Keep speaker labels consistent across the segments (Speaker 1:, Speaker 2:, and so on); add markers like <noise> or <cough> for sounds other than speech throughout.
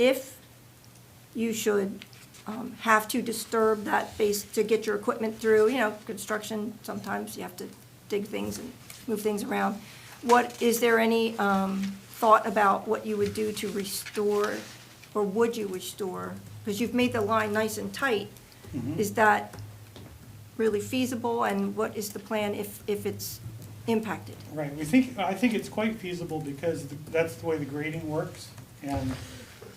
Speaker 1: if you should um, have to disturb that base to get your equipment through, you know, construction, sometimes you have to dig things and move things around. What, is there any um, thought about what you would do to restore, or would you restore? Because you've made the line nice and tight. Is that really feasible, and what is the plan if, if it's impacted?
Speaker 2: Right, we think, I think it's quite feasible because th- that's the way the grading works. And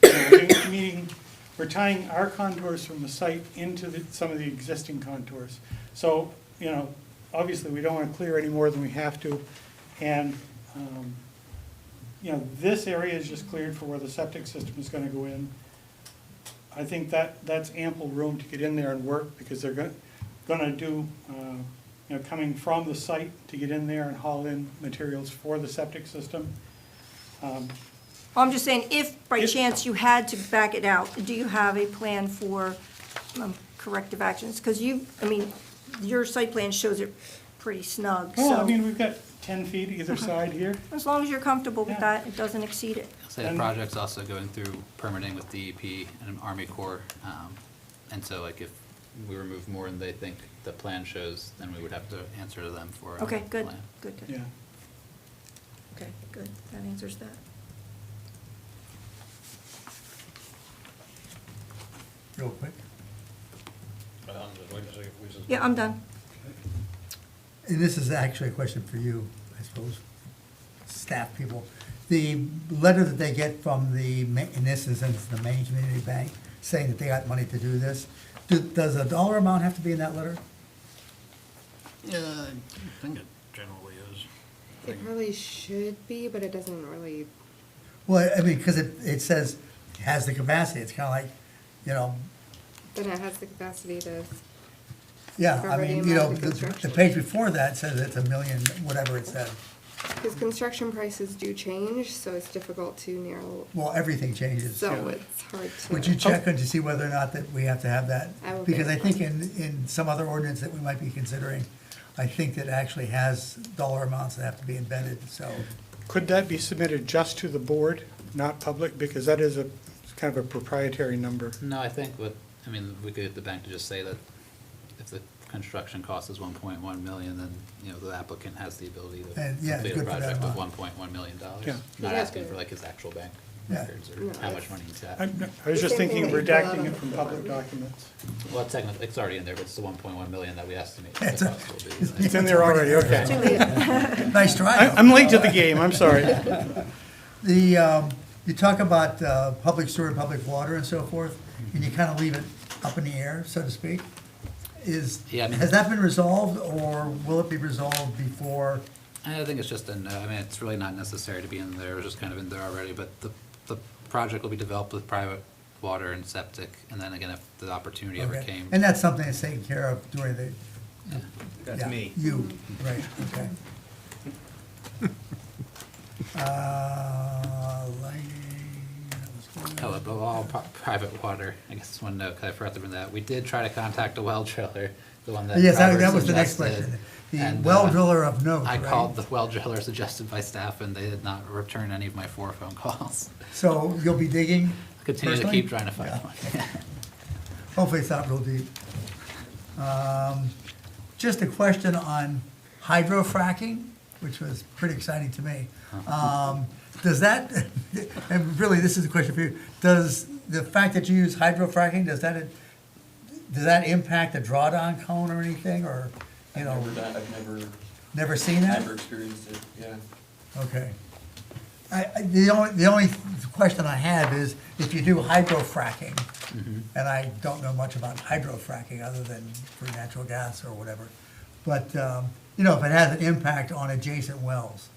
Speaker 2: you know, we're doing- meaning, we're tying our contours from the site into the, some of the existing contours. So, you know, obviously, we don't want to clear any more than we have to. And, um, you know, this area is just cleared for where the septic system is going to go in. I think that, that's ample room to get in there and work, because they're gonna, gonna do, uh, you know, coming from the site to get in there and haul in materials for the septic system. Um,
Speaker 1: Oh, I'm just saying, if by
Speaker 2: If-
Speaker 1: chance you had to back it out, do you have a plan for um, corrective actions? Because you, I mean, your site plan shows it pretty snug,
Speaker 2: Well, I
Speaker 1: so
Speaker 2: mean, we've got ten feet either side here.
Speaker 1: as long as you're comfortable with
Speaker 2: Yeah.
Speaker 1: that, it doesn't exceed it.
Speaker 3: I'll say the
Speaker 2: And-
Speaker 3: project's also going through permitting with DEP and Army Corps. um, And so like if we remove more than they think the plan shows, then we would have to answer to them for. our
Speaker 1: Okay, good,
Speaker 3: plan.
Speaker 1: good,
Speaker 2: Yeah,
Speaker 1: good. Okay, good, that answers that.
Speaker 4: Real quick.
Speaker 5: I'm just waiting to see if we just.
Speaker 1: Yeah, I'm done.
Speaker 4: And this is actually a question for you, I suppose, staff people. The letter that they get from the, ma- in this instance, the Maine Community Bank, saying that they got money to do this, do- does a dollar amount have to be in that letter?
Speaker 5: Yeah, I think it generally is.
Speaker 6: It probably should be, but it doesn't really,
Speaker 4: Well, I mean, because it, it says, has the capacity, it's kind of like, you know,
Speaker 6: then it has the capacity to,
Speaker 4: yeah, I
Speaker 6: Cover the
Speaker 4: mean, you know,
Speaker 6: amount of
Speaker 4: the, the
Speaker 6: construction.
Speaker 4: page before that says it's a million, whatever it said.
Speaker 6: because construction prices do change, so it's difficult to narrow,
Speaker 4: Well, everything changes.
Speaker 6: so it's hard to.
Speaker 4: Would you
Speaker 2: Oh.
Speaker 4: check on to see whether or not that we have to have that?
Speaker 6: I will
Speaker 4: Because I
Speaker 6: verify.
Speaker 4: think in, in some other ordinance that we might be considering, I think that actually has dollar amounts that have to be embedded, so.
Speaker 2: Could that be submitted just to the board, not public, because that is a, it's kind of a proprietary number?
Speaker 3: No, I think what, I mean, we could get the bank to just say that if the construction cost is one point one million, then, you know, the applicant has the ability to
Speaker 4: And, yeah,
Speaker 3: complete a
Speaker 4: good for uh, that
Speaker 3: project with one
Speaker 4: amount.
Speaker 3: point one million dollars.
Speaker 2: Yeah.
Speaker 3: Not
Speaker 6: Yeah.
Speaker 3: asking for like his actual bank
Speaker 4: Yeah.
Speaker 3: records
Speaker 6: No,
Speaker 3: or how much
Speaker 6: that's-
Speaker 3: money he's at.
Speaker 2: I'm- I was just
Speaker 6: Same
Speaker 2: thinking
Speaker 6: thing
Speaker 2: of
Speaker 6: that you fill out
Speaker 2: redacting
Speaker 6: on
Speaker 2: it
Speaker 6: the
Speaker 2: from
Speaker 6: form.
Speaker 2: public documents.
Speaker 3: Well, technically, it's already in there, but it's the one point one million that we
Speaker 4: <laughs>
Speaker 3: estimate the
Speaker 4: It's a-
Speaker 3: cost will be. like-
Speaker 2: It's in there already,
Speaker 1: Too
Speaker 2: okay.
Speaker 6: Oh,
Speaker 1: late.
Speaker 4: Nice try.
Speaker 2: I- I'm late to the game, I'm sorry.
Speaker 4: The, um, you talk about, uh, public sewer, public water and so forth, and you kind of leave it up in the air, so to speak. Is,
Speaker 3: Yeah, I mean-
Speaker 4: has that been resolved or will it be resolved before?
Speaker 3: I think it's just a no, I mean, it's really not necessary to be in there, it's just kind of in there already, but the, the project will be developed with private water and septic, and then again, if the opportunity ever
Speaker 4: Okay.
Speaker 3: came.
Speaker 4: And that's something that's taken care of during the. yeah, You, right, okay. Uh, lighting, that was good.
Speaker 3: Oh, but all pri- private water, I guess, one note, 'cause I forgot to bring that, we did try to contact a well driller, the one that
Speaker 4: Yes, that
Speaker 3: Robert
Speaker 4: that was the next
Speaker 3: suggested,
Speaker 4: question. The
Speaker 3: and,
Speaker 4: well
Speaker 3: uh,
Speaker 4: driller of note,
Speaker 3: I
Speaker 4: right?
Speaker 3: called the well driller suggested by staff, and they did not return any of my four phone calls.
Speaker 4: So you'll be digging?
Speaker 3: Continue to
Speaker 4: personally?
Speaker 3: keep trying to find one. <laughs>
Speaker 4: Hopefully it's not real deep. Um, Just a question on hydrofracking, which was pretty exciting to me.
Speaker 7: Uh-huh.
Speaker 4: Um, Does that, <laughs> and really, this is a question for you, does the fact that you use hydrofracking, does that, does that impact the drawdown cone or anything, or, you know,
Speaker 7: Never done, I've never,
Speaker 4: never seen that?
Speaker 7: never experienced it, yeah.
Speaker 4: Okay. I, I- the only, the only question I have is if you do hydrofracking, and I don't know much about hydrofracking other than for natural gas or whatever, but, um, you know, if it has an impact on adjacent wells,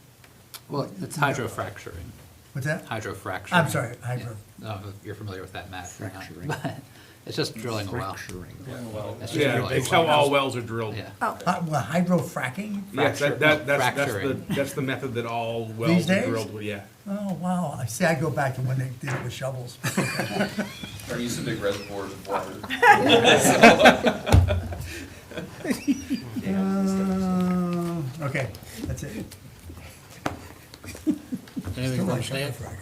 Speaker 3: Well, it's hydrofracturing.
Speaker 4: what's that?
Speaker 3: Hydrofracturing.
Speaker 4: I'm sorry, hydro-
Speaker 3: Yeah. No, you're familiar with that, Matt. you're not. But It's just drilling a well. It's just
Speaker 8: Yeah,
Speaker 3: drilling a
Speaker 8: it's how
Speaker 3: well.
Speaker 8: all wells are drilled.
Speaker 3: Yeah.
Speaker 1: Oh,
Speaker 4: Hy- Well, hydrofracking?
Speaker 8: Yes, that, that, that's, that's the,
Speaker 3: Fracturing.
Speaker 8: that's the method that all wells are
Speaker 4: days?
Speaker 8: drilled with, yeah.
Speaker 4: Oh, wow, I see, I go back to when they did it with shovels.
Speaker 7: Or use a big reservoir of water.
Speaker 4: Uh, Okay, that's it. Still like hydrofracking.